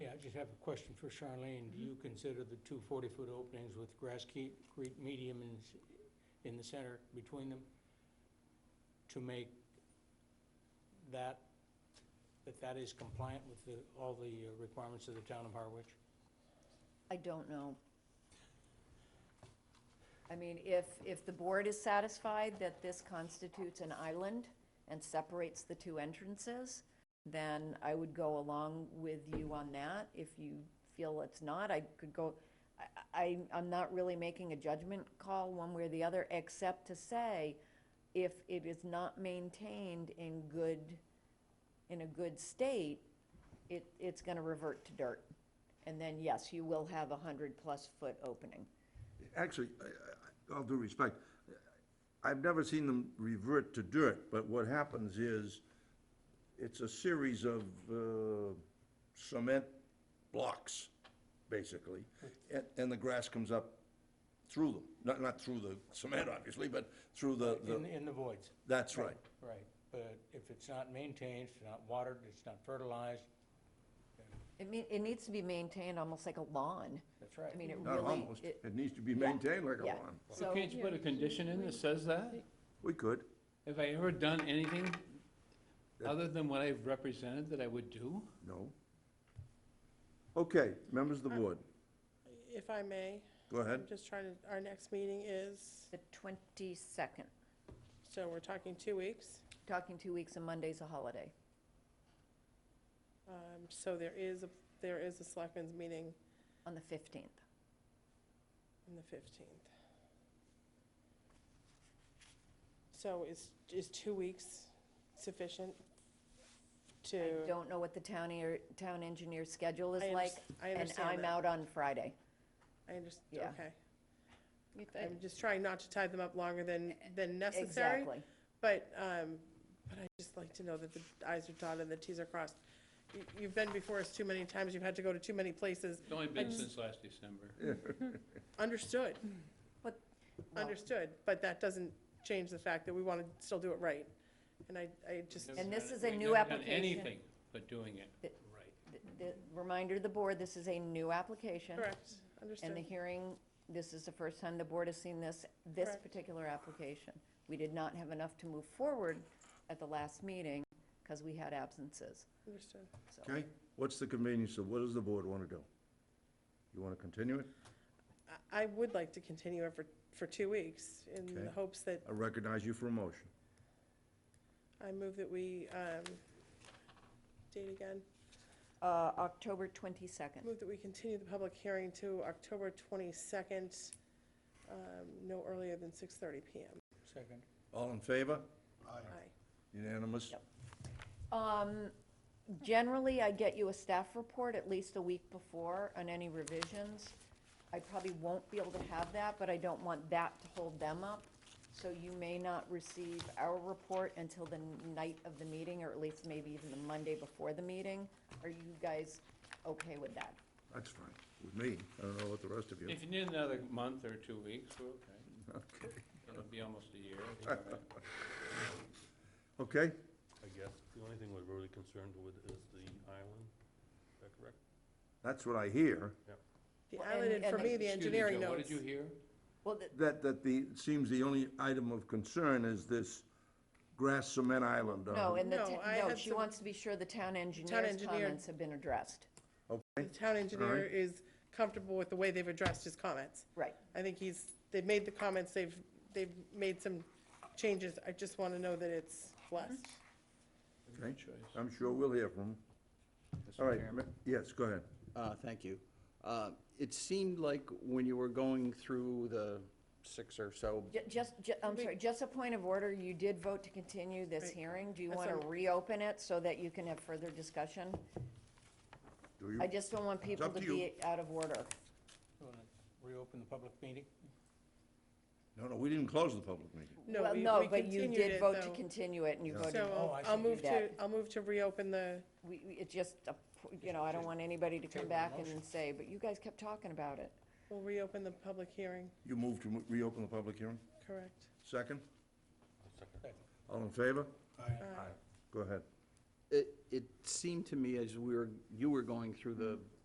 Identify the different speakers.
Speaker 1: just have a question for Charlene. Do you consider the two 40-foot openings with grass keep, creep medium in, s- in the center between them to make that, that that is compliant with the, all the uh, requirements of the town of Harwich?
Speaker 2: I don't know. I mean, if, if the board is satisfied that this constitutes an island and separates the two entrances, then I would go along with you on that. If you feel it's not, I could go, I- I, I'm not really making a judgment call one way or the other, except to say, if it is not maintained in good, in a good state, it, it's gonna revert to dirt. And then, yes, you will have a hundred-plus foot opening.
Speaker 3: Actually, I- I- all due respect, I've never seen them revert to dirt, but what happens is, it's a series of uh, cement blocks, basically, and, and the grass comes up through them, not, not through the cement, obviously, but through the, the-
Speaker 1: In, in the voids?
Speaker 3: that's right.
Speaker 1: Right, but if it's not maintained, it's not watered, it's not fertilized,
Speaker 2: It mean, it needs to be maintained almost like a lawn.
Speaker 1: that's right.
Speaker 2: I mean, it
Speaker 3: Not
Speaker 2: really,
Speaker 3: almost,
Speaker 2: it,
Speaker 3: it needs to be
Speaker 2: yeah,
Speaker 3: maintained like a
Speaker 2: yeah.
Speaker 3: lawn.
Speaker 2: So,
Speaker 4: Can't you put a condition in that says that?
Speaker 3: We could,
Speaker 4: Have I ever done anything other than what I've represented that I would do?
Speaker 3: no. Okay, members
Speaker 2: Uh,
Speaker 3: of the board,
Speaker 5: If I may,
Speaker 3: go ahead.
Speaker 5: I'm just trying to, our next meeting is,
Speaker 2: the twenty-second,
Speaker 5: so we're talking two weeks.
Speaker 2: talking two weeks and Monday's a holiday.
Speaker 5: Um, So there is, a there is a selectmen's meeting
Speaker 2: On the fifteenth.
Speaker 5: on the 15th. So is, is two weeks sufficient to?
Speaker 2: I don't know what the town ear, town engineer's schedule is
Speaker 5: I unders-
Speaker 2: like.
Speaker 5: I understand
Speaker 2: And I'm
Speaker 5: that.
Speaker 2: out on Friday.
Speaker 5: I understand,
Speaker 2: yeah.
Speaker 5: okay. I'm just trying not to tie them up longer than, than necessary.
Speaker 2: Exactly.
Speaker 5: But, um, but I just like to know that the i's are dotted and the t's are crossed. You- You've been before us too many times, you've had to go to too many places.
Speaker 4: It's only been since last December.
Speaker 5: Understood,
Speaker 2: But, well,
Speaker 5: understood, but that doesn't change the fact that we want to still do it right. And I, I just,
Speaker 2: And this is a
Speaker 4: We've
Speaker 2: new
Speaker 4: never done
Speaker 2: application.
Speaker 4: Anything but doing it
Speaker 2: It-
Speaker 4: right.
Speaker 2: th- th- reminder to the board, this is a new application.
Speaker 5: correct,
Speaker 2: And the
Speaker 5: understood.
Speaker 2: hearing, this is the first time the board has seen this, this
Speaker 5: Correct.
Speaker 2: particular application. We did not have enough to move forward at the last meeting because we had absences.
Speaker 5: Understood.
Speaker 2: So
Speaker 3: Okay, what's the convenience of, what does the board want to do? You want to continue it?
Speaker 5: I- I would like to continue it for, for two weeks in the
Speaker 3: Okay.
Speaker 5: hopes that
Speaker 3: I recognize you for a motion.
Speaker 5: I move that we, um, date again,
Speaker 2: uh, October 22nd.
Speaker 5: move that we continue the public hearing to October 22nd, um, no earlier than 6:30 PM.
Speaker 1: Second.
Speaker 3: All in favor?
Speaker 5: Aye.
Speaker 3: Unanimous?
Speaker 2: Yep. Um, Generally, I get you a staff report at least a week before on any revisions. I probably won't be able to have that, but I don't want that to hold them up. So you may not receive our report until the night of the meeting, or at least maybe even the Monday before the meeting. Are you guys okay with that?
Speaker 3: That's fine, with me. I don't know what the rest of you.
Speaker 4: If you need another month or two weeks, we're okay.
Speaker 3: Okay.
Speaker 4: It'll be almost a year. It'll be all right.
Speaker 3: Okay,
Speaker 6: I guess the only thing we're really concerned with is the island. Is that correct?
Speaker 3: that's what I hear,
Speaker 5: The
Speaker 2: Well,
Speaker 5: island,
Speaker 2: and-
Speaker 5: and for
Speaker 2: and
Speaker 5: me,
Speaker 2: the-
Speaker 5: the
Speaker 4: Excuse me,
Speaker 5: engineering
Speaker 4: Joe,
Speaker 5: notes.
Speaker 4: What did you hear?
Speaker 2: Well, the-
Speaker 3: that, that the, it seems the only item of concern is this grass cement island. uh, on-
Speaker 2: no, and the,
Speaker 5: No,
Speaker 2: ta-
Speaker 5: I
Speaker 2: no,
Speaker 5: had
Speaker 2: she
Speaker 5: some-
Speaker 2: wants to be sure the town engineer's
Speaker 5: engineer-
Speaker 2: comments have been addressed.
Speaker 5: The town engineer is comfortable with the way they've addressed his comments.
Speaker 2: Right.
Speaker 5: I think he's, they've made the comments, they've, they've made some changes. I just want to know that it's blessed.
Speaker 2: Mm-hmm.
Speaker 3: Okay.
Speaker 4: choice.
Speaker 3: I'm sure we'll hear from them. All right, ma- yes, go ahead.
Speaker 7: Uh, Thank you. Uh, It seemed like when you were going through the six or so,
Speaker 2: Ju- Just, ju- I'm sorry, just a point of order, you did vote to continue this
Speaker 5: Right.
Speaker 2: hearing. Do you
Speaker 5: That's
Speaker 2: want to
Speaker 5: all.
Speaker 2: reopen it so that you can have further discussion?
Speaker 3: Do you?
Speaker 2: I just don't want people
Speaker 3: up
Speaker 2: to
Speaker 3: to you.
Speaker 2: be out of order.
Speaker 1: You wanna Reopen the public meeting?
Speaker 3: No, no, we didn't close the public meeting.
Speaker 5: No,
Speaker 2: Well,
Speaker 5: we-
Speaker 2: no,
Speaker 5: we
Speaker 2: but you
Speaker 5: continued
Speaker 2: did
Speaker 5: it,
Speaker 2: vote to
Speaker 5: though.
Speaker 2: continue it, and you
Speaker 3: Yeah.
Speaker 2: voted,
Speaker 5: So
Speaker 1: Oh,
Speaker 5: I'll-
Speaker 1: I
Speaker 5: I'll
Speaker 1: see.
Speaker 5: move to,
Speaker 2: That-
Speaker 5: I'll move to reopen the,
Speaker 2: we, we- it just, a p- you know, I don't want anybody to come
Speaker 1: Table
Speaker 2: back
Speaker 1: motion.
Speaker 2: and say, but you guys kept talking about it.
Speaker 5: we'll reopen the public hearing,
Speaker 3: You moved to mo- reopen the public hearing?
Speaker 5: correct?
Speaker 3: Second?
Speaker 6: Second.
Speaker 3: All in favor?
Speaker 5: Aye.
Speaker 3: Go ahead.
Speaker 7: it it seemed to me as we were, you were going through the